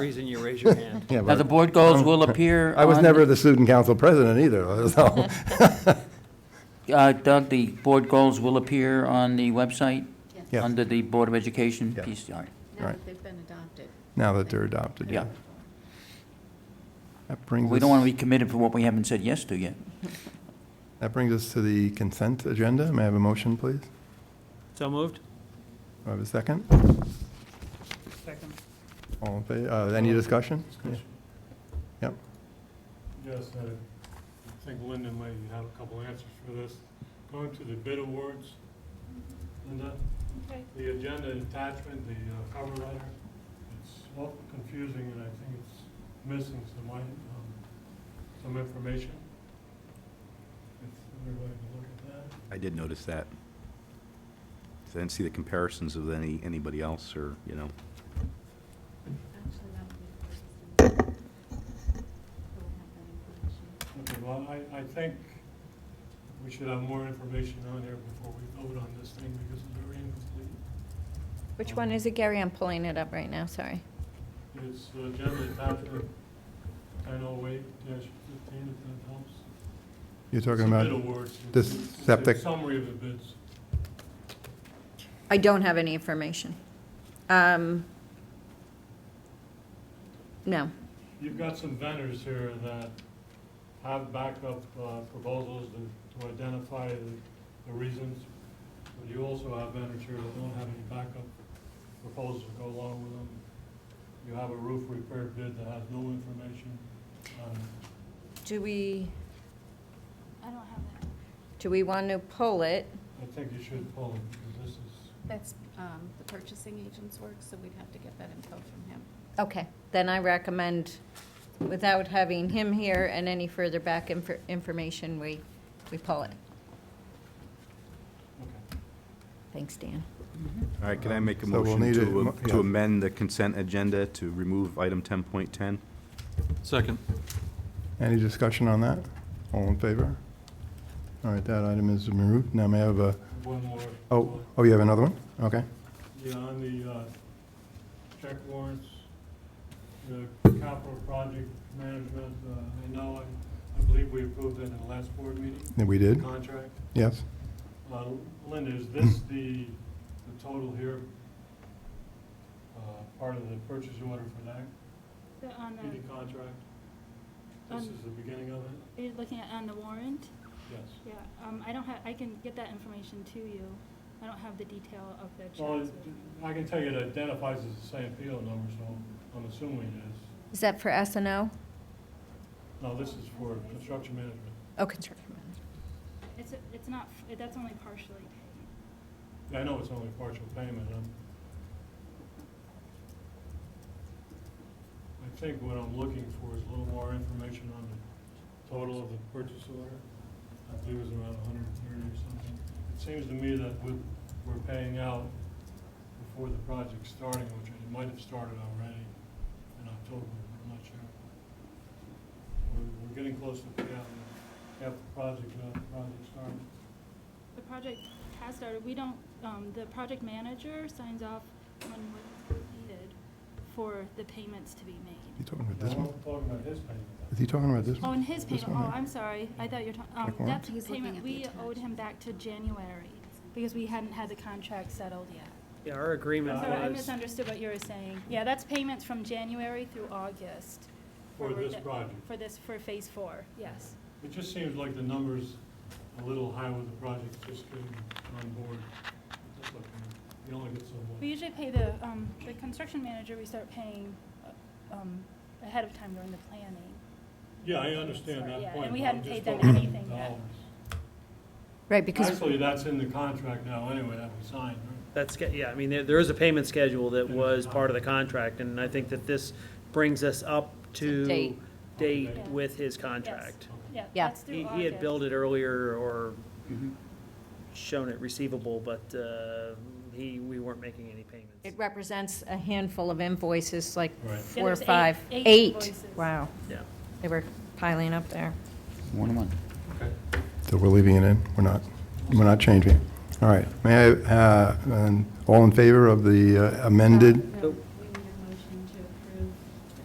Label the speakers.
Speaker 1: reason you raise your hand.
Speaker 2: Yeah,
Speaker 3: Now, the
Speaker 2: but
Speaker 3: board goals will appear
Speaker 2: I was
Speaker 3: on-
Speaker 2: never the student council president either, so.
Speaker 3: Uh, Doug, the board goals will appear on the website?
Speaker 2: Yes.
Speaker 3: Under the Board of Education
Speaker 2: Yeah.
Speaker 3: piece, all right.
Speaker 4: Now
Speaker 2: Right.
Speaker 4: that they've been adopted.
Speaker 2: Now that they're adopted.
Speaker 3: Yeah.
Speaker 2: That brings us.
Speaker 3: We don't want to be committed for what we haven't said yes to yet.
Speaker 2: That brings us to the consent agenda. May I have a motion, please? Do
Speaker 1: So moved?
Speaker 2: I have a second?
Speaker 5: Second.
Speaker 2: All in favor, uh, any discussion? Yep.
Speaker 5: Yes, I think Linda might have a couple answers for this. Going to the bid awards, Linda,
Speaker 4: Okay.
Speaker 5: the agenda attachment, the uh, cover letter, it's awful confusing and I think it's missing some, i- um, some information. If everybody can look at that.
Speaker 6: I did notice that. I didn't see the comparisons of any, anybody else or, you know.
Speaker 4: Actually, that would be the first thing. We'll have that information.
Speaker 5: Okay, well, I, I think we should have more information on there before we vote on this thing because it's very incomplete.
Speaker 7: Which one is it, Gary? I'm pulling it up right now, sorry.
Speaker 5: It's uh, generally attachment ten oh eight dash fifteen, if that helps.
Speaker 2: You're talking
Speaker 5: It's a Bid
Speaker 2: about,
Speaker 5: awards.
Speaker 2: the
Speaker 5: It's- it's a
Speaker 2: septic-
Speaker 5: Summary of the bids.
Speaker 7: I don't have any information. Um, No.
Speaker 5: You've got some vendors here that have backup uh, proposals to- to identify the the reasons. But you also have vendors here that don't have any backup proposals to go along with them. You have a roof repair bid that has no information on
Speaker 7: Do we,
Speaker 4: I don't have that.
Speaker 7: do we want to pull it?
Speaker 5: I think you should pull it, because this is.
Speaker 4: That's um, the purchasing agent's work, so we'd have to get that info from him.
Speaker 7: Okay, then I recommend, without having him here and any further back infor- information, we, we pull it.
Speaker 5: Okay.
Speaker 7: Thanks, Dan.
Speaker 6: All right, can I make a
Speaker 2: So we'll
Speaker 6: motion
Speaker 2: need a
Speaker 6: to,
Speaker 2: mo-
Speaker 6: to
Speaker 2: yeah.
Speaker 6: amend the consent agenda to remove item ten point ten?
Speaker 1: Second.
Speaker 2: any discussion on that? All in favor? All right, that item is removed. Now may I have a,
Speaker 5: One more.
Speaker 2: oh, oh, you have another one? Okay.
Speaker 5: Yeah, on the uh, check warrants, the capital project management, uh, I know, I- I believe we approved that in the last board meeting,
Speaker 2: Yeah, We
Speaker 5: the
Speaker 2: did?
Speaker 5: contract.
Speaker 2: Yes?
Speaker 5: Uh, Linda, is this the, the total here? uh, Part of the purchase order for that
Speaker 8: The- On
Speaker 5: PD
Speaker 8: the,
Speaker 5: contract? This
Speaker 8: Um,
Speaker 5: is the beginning of it?
Speaker 8: are you looking at on the warrant?
Speaker 5: Yes.
Speaker 8: Yeah, um, I don't have, I can get that information to you. I don't have the detail of the
Speaker 5: Well,
Speaker 8: checks.
Speaker 5: it- I can tell you it identifies as the same PO number, so I'm assuming it is.
Speaker 7: Is that for S and O?
Speaker 5: No, this is for construction management.
Speaker 7: Oh, construction manager.
Speaker 8: It's, it's not, f- that's only partially paid.
Speaker 5: Yeah, I know it's only partial payment, um. I think what I'm looking for is a little more information on the total of the purchase order. I believe it was around hundred and thirty or something. It seems to me that we, we're paying out before the project's starting, which it might have started already in October, I'm not sure. We're, we're getting close to payout, half the project, uh, project started.
Speaker 8: The project has started, we don't, um, the project manager signs off when what's completed for the payments to be made.
Speaker 2: You talking about
Speaker 5: No,
Speaker 2: this one?
Speaker 5: I'm talking about his payment.
Speaker 2: Is he talking about this
Speaker 8: Oh,
Speaker 2: one?
Speaker 8: and his
Speaker 2: This
Speaker 8: payment,
Speaker 2: one,
Speaker 8: oh,
Speaker 2: right?
Speaker 8: I'm sorry, I thought you were
Speaker 2: Check
Speaker 8: talking, um,
Speaker 2: warrant?
Speaker 8: that's
Speaker 4: He's looking
Speaker 8: payment,
Speaker 4: at the
Speaker 8: we owed him back to January because we hadn't had the contract settled yet.
Speaker 1: Yeah, our agreement
Speaker 8: Sorry, I
Speaker 1: was,
Speaker 8: misunderstood what you were saying. Yeah, that's payments from January through August.
Speaker 5: For this
Speaker 8: the-
Speaker 5: project.
Speaker 8: For this, for phase four, yes.
Speaker 5: It just seems like the number's a little high with the project just getting on board. That's okay. You only get so
Speaker 8: We
Speaker 5: much.
Speaker 8: usually pay the, um, the construction manager, we start paying, uh, um, ahead of time during the planning.
Speaker 5: Yeah, I understand
Speaker 8: Sorry, yeah,
Speaker 5: that
Speaker 8: and
Speaker 5: point.
Speaker 8: we
Speaker 5: but
Speaker 8: hadn't
Speaker 5: I'm just
Speaker 8: paid them
Speaker 5: talking about
Speaker 8: anything yet.
Speaker 5: dollars.
Speaker 7: Right, because,
Speaker 5: Actually, that's in the contract now anyway, that we signed, right?
Speaker 1: that's, ge- yeah, I mean, there, there is a payment schedule that was part of the contract, and I think that this brings us up to
Speaker 7: Date.
Speaker 1: date
Speaker 8: Yeah.
Speaker 1: with his contract.
Speaker 8: Yeah,
Speaker 7: Yeah.
Speaker 8: that's through
Speaker 1: He,
Speaker 8: August.
Speaker 1: he had billed it earlier or shown it receivable, but, uh, he, we weren't making any
Speaker 7: it
Speaker 1: payments.
Speaker 7: represents a handful of invoices, like
Speaker 5: Right. Yeah,
Speaker 7: four or
Speaker 8: there's eight-
Speaker 7: five.
Speaker 8: eight invoices.
Speaker 7: Wow,
Speaker 1: Yeah.
Speaker 7: they were piling up there.
Speaker 3: One to one.
Speaker 5: Okay.
Speaker 2: So we're leaving it in? We're not, we're not
Speaker 4: Um,
Speaker 2: changing it? All right. May I, uh, and all in favor of the uh, amended?
Speaker 1: So